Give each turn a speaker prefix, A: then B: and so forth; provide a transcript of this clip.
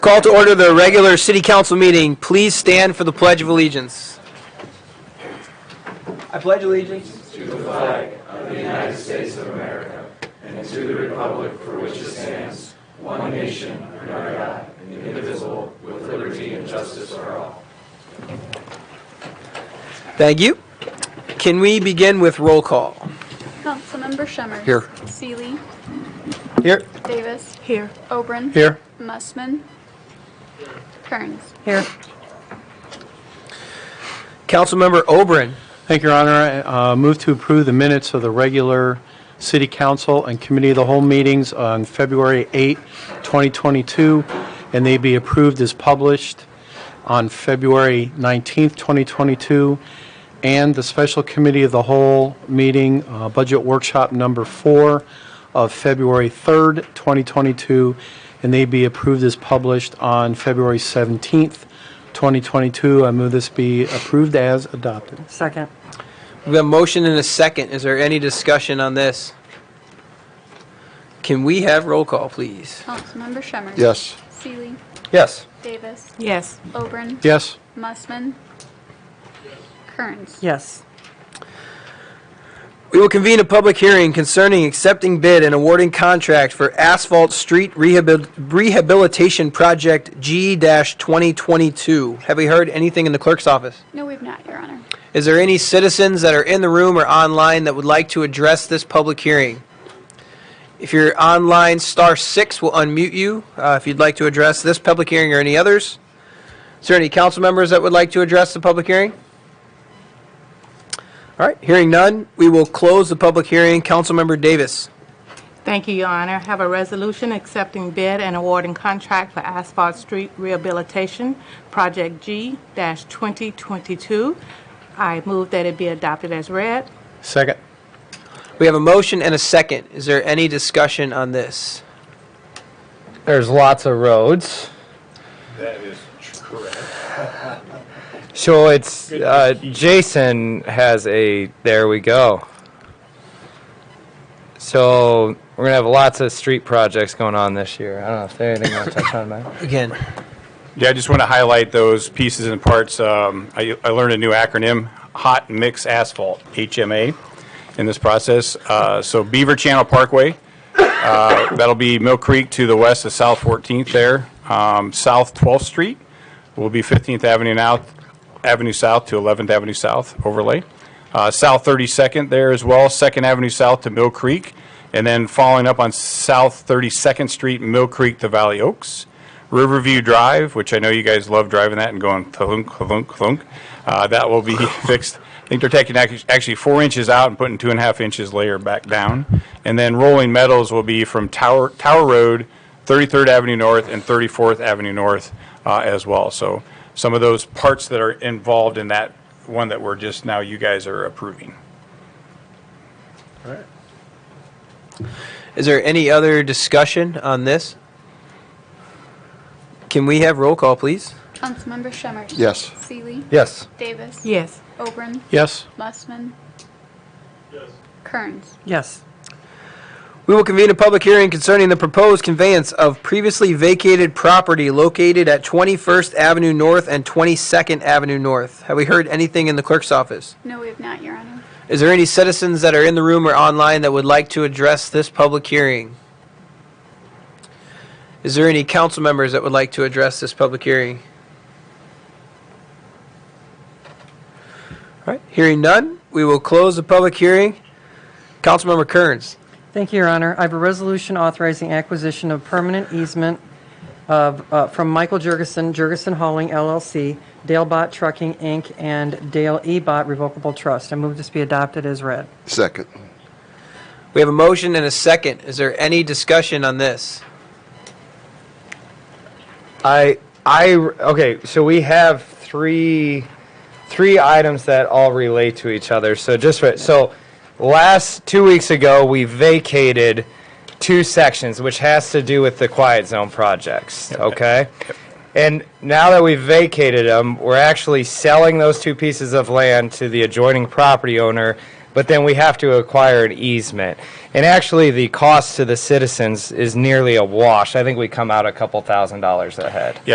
A: Call to order the regular city council meeting. Please stand for the Pledge of Allegiance. I pledge allegiance. Thank you. Can we begin with roll call?
B: Councilmember Shemmers.
A: Here.
B: Seeley.
A: Here.
B: Davis. Here. Obrin.
A: Here.
B: Mussman. Kearns.
A: Here. Councilmember Oberon.
C: Thank you, Your Honor. I, uh, Move to approve the minutes of the regular City Council and Committee of the Whole meetings on February 8, 2022, and they be approved as published on February 19, 2022, and the Special Committee of the Whole meeting, uh, Budget Workshop Number 4 of February 3, 2022, and they be approved as published on February 17, 2022. I move this be approved as adopted.
D: Second.
A: We have a motion and a second. Is there any discussion on this? Can we have roll call, please?
B: Councilmember Shemmers.
E: Yes.
B: Seeley.
A: Yes.
B: Davis.
D: Yes.
B: Obrin.
C: Yes.
B: Mussman. Kearns.
D: Yes.
A: We will convene a public hearing concerning accepting bid and awarding contract for asphalt street rehabil- rehabilitation project G-2022. Have we heard anything in the clerk's office?
B: No, we've not, Your Honor.
A: Is there any citizens that are in the room or online that would like to address this public hearing? If you're online, star six will unmute you uh, if you'd like to address this public hearing or any others. Is there any council members that would like to address the public hearing? All right, hearing none, we will close the public hearing. Councilmember Davis.
F: Thank you, Your Honor. Have a resolution accepting bid and awarding contract for asphalt street rehabilitation, Project G-2022. I move that it be adopted as read.
C: Second.
A: We have a motion and a second. Is there any discussion on this?
G: There's lots of roads. That is correct. So it's, uh, Jason has a, there we go. So we're gonna have lots of street projects going on this year. I don't know if they anything want to touch on that.
A: Again,
H: Yeah, I just want to highlight those pieces and parts. Um, I I learned a new acronym, Hot Mix Asphalt, HMA, in this process. Uh, So Beaver Channel Parkway, uh, that'll be Mill Creek to the west of South 14th there. Um, South 12th Street will be 15th Avenue now, Avenue South to 11th Avenue South overlay. Uh, South 32nd there as well, 2nd Avenue South to Mill Creek, and then following up on South 32nd Street, Mill Creek to Valley Oaks. Riverview Drive, which I know you guys love driving that and going thunk, thunk, thunk. Uh, that will be fixed. I think they're taking ac- actually four inches out and putting two and a half inches layer back down. And then rolling metals will be from Tower, Tower Road, 33rd Avenue North and 34th Avenue North uh, as well. So some of those parts that are involved in that one that we're just now, you guys are approving.
A: is there any other discussion on this? Can we have roll call, please?
B: Councilmember Shemmers.
E: Yes.
B: Seeley.
G: Yes.
B: Davis.
F: Yes.
B: Obrin.
C: Yes.
B: Mussman. Kearns.
D: Yes.
A: We will convene a public hearing concerning the proposed conveyance of previously vacated property located at 21st Avenue North and 22nd Avenue North. Have we heard anything in the clerk's office?
B: No, we have not, Your Honor.
A: Is there any citizens that are in the room or online that would like to address this public hearing? Is there any council members that would like to address this public hearing? All right, hearing none, we will close the public hearing. Councilmember Kearns.
D: Thank you, Your Honor. I have a resolution authorizing acquisition of permanent easement of, uh, from Michael Jurgensen, Jurgensen Hauling LLC, Dale Bot Trucking, Inc., and Dale E. Bot Revocable Trust. I move this be adopted as read.
E: Second.
A: We have a motion and a second. Is there any discussion on this?
G: I, I, okay, so we have three, three items that all relate to each other. So just for, so last, two weeks ago, we vacated two sections, which has to do with the quiet zone projects, okay? And now that we've vacated them, we're actually selling those two pieces of land to the adjoining property owner, but then we have to acquire an easement. And actually, the cost to the citizens is nearly a wash. I think we come out a couple thousand dollars ahead.